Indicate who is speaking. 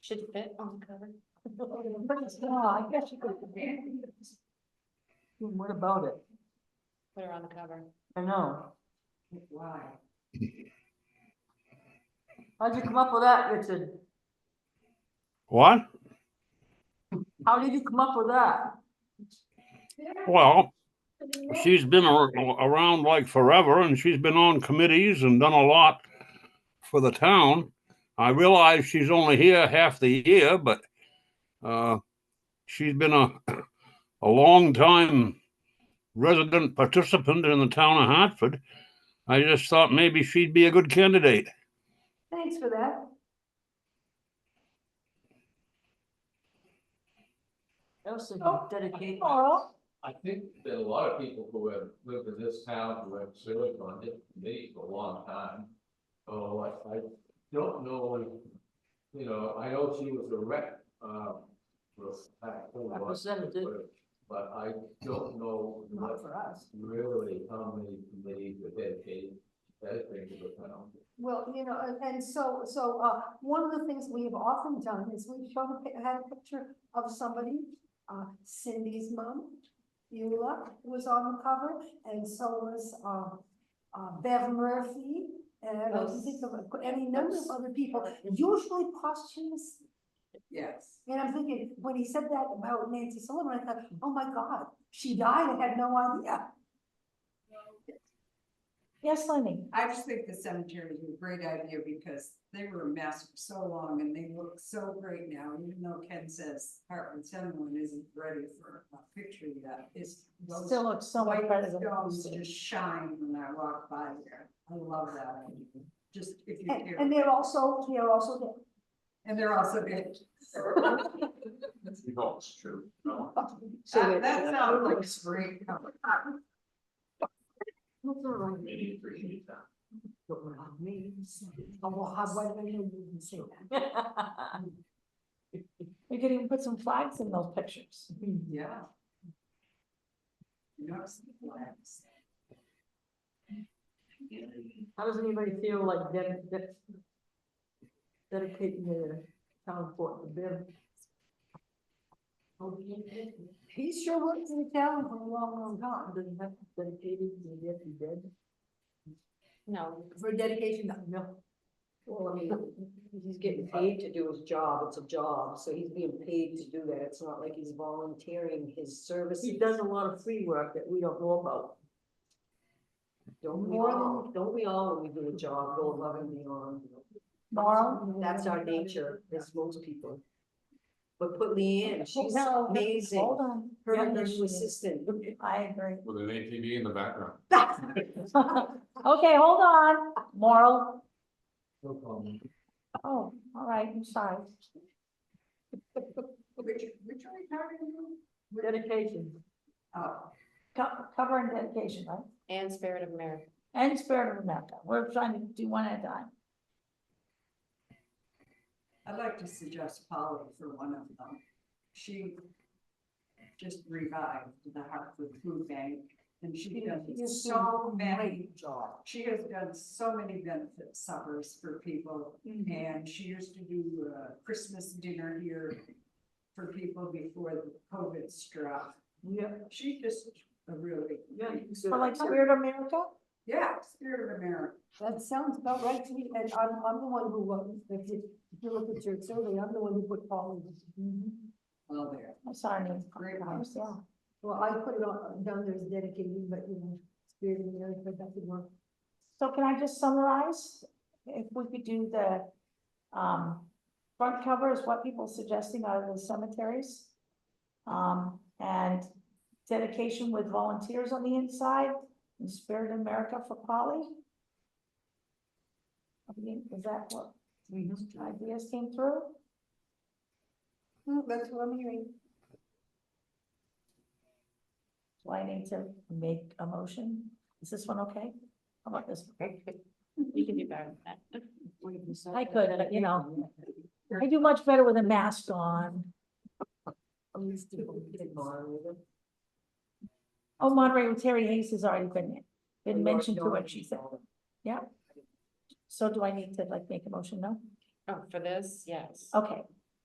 Speaker 1: Should fit on the cover. Oh, I guess you could.
Speaker 2: What about it?
Speaker 1: Put her on the cover.
Speaker 2: I know. How'd you come up with that, Richard?
Speaker 3: What?
Speaker 2: How did you come up with that?
Speaker 3: Well, she's been ar- around like forever and she's been on committees and done a lot for the town. I realize she's only here half the year, but uh, she's been a, a long time resident participant in the town of Hartford. I just thought maybe she'd be a good candidate.
Speaker 2: Thanks for that. That was so
Speaker 4: Oh,
Speaker 2: dedicated.
Speaker 4: Carl.
Speaker 5: I think that a lot of people who have lived in this town who have served on different committees for a long time. Oh, I, I don't know, if- you know, I know she was a rep, um, for a fact, for a lot of
Speaker 2: Representative.
Speaker 5: people, But I don't know
Speaker 2: Not
Speaker 5: what
Speaker 2: for us.
Speaker 5: really, how many committees are dedicated, dedicated to the town.
Speaker 4: Well, you know, and, and so, so, uh, one of the things we have often done is we show, a pi- had a picture of somebody, uh, Cindy's mom, Eula, was on the cover, and so was, uh, uh, Bev Murphy, and I can think of any number of other people, usually posthumous.
Speaker 2: Yes.
Speaker 4: And I'm thinking, when he said that about Nancy Sullivan, I thought, oh my God, she died, I had no idea. Yes, Lenny?
Speaker 6: I just think the cemetery is a great idea because they were a mess for so long and they look so great now, even though Ken says Heartland Cemetery isn't ready for a picture yet, it's. those
Speaker 1: Still looks so much
Speaker 6: white
Speaker 1: better than. it
Speaker 6: Stones
Speaker 1: used to.
Speaker 6: just shine when I walk by there, I love that idea, just if you
Speaker 4: And,
Speaker 6: care,
Speaker 4: and they're also, they're also, the-
Speaker 6: and they're also good.
Speaker 5: No, it's true.
Speaker 6: That, that sounds like a great cover.
Speaker 4: oh, well, how, why did I know you didn't say that?
Speaker 1: We could even put some flags in those pictures.
Speaker 6: Yeah. You know, it's the flags.
Speaker 2: How does anybody feel like ded- ded- dedicating their town for them?
Speaker 4: He sure worked in the town for a long, long time.
Speaker 2: Doesn't have to be dedicated, you have to be dead.
Speaker 1: No,
Speaker 4: For dedication, no, no.
Speaker 7: Well, I mean, he's getting paid to do his job, it's a job, so he's being paid to do that, it's not like he's volunteering his services.
Speaker 2: He does a lot of free work that we don't know about.
Speaker 7: Don't we
Speaker 4: more
Speaker 7: all, don't we all, when we do a job, go above and beyond?
Speaker 4: Laurel?
Speaker 7: That's our nature, as most people. But put Leanne, she's
Speaker 1: No, hold
Speaker 7: amazing,
Speaker 1: on.
Speaker 7: her
Speaker 1: Yeah,
Speaker 7: and her
Speaker 1: she
Speaker 7: new
Speaker 1: is.
Speaker 7: assistant.
Speaker 1: I agree.
Speaker 5: With an ATV in the background.
Speaker 1: Okay, hold on, Moral.
Speaker 5: No problem.
Speaker 1: Oh, all right, I'm sorry.
Speaker 6: Which, which are we talking about?
Speaker 2: Dedication.
Speaker 6: Oh.
Speaker 1: Co- Cover and dedication, right?
Speaker 7: And Spirit of America.
Speaker 1: And Spirit of America. We're trying to do one at a time.
Speaker 6: I'd like to suggest Polly for one of them. She just revived the Hartford Food Bank and she does so many,
Speaker 7: job.
Speaker 6: she has done so many benefit suppers for people. And she used to do uh, Christmas dinner here for people before the COVID struck.
Speaker 2: Yeah,
Speaker 6: She's just a really,
Speaker 2: yeah. you
Speaker 1: For
Speaker 2: said-
Speaker 1: like Spirit of America?
Speaker 6: yeah, spirit of America.
Speaker 4: That sounds about right to me, and I'm, I'm the one who, uh, if you, if you look at your survey, I'm the one who put Paul in.
Speaker 6: Well, there.
Speaker 1: I'm sorry.
Speaker 6: Great house.
Speaker 1: Yeah.
Speaker 4: Well, I put it on, down there as dedicated, but you know, spirit of America, that could work.
Speaker 1: So can I just summarize? If we could do the, um, front cover is what people suggesting out of the cemeteries. Um, and dedication with volunteers on the inside and Spirit of America for Polly. I mean, is that what ideas came through?
Speaker 4: Hmm, That's what I'm hearing.
Speaker 1: Do I need to make a motion? Is this one okay? How about this?
Speaker 8: You can do better than that.
Speaker 1: I could, but, you know, I do much better with a mask on.
Speaker 7: At least people get moderated.
Speaker 1: Oh, moderator Terry Hayes has already been, been mentioned to what she said. So do I need to like make a motion? No?
Speaker 8: Oh, for this, yes.
Speaker 1: Okay,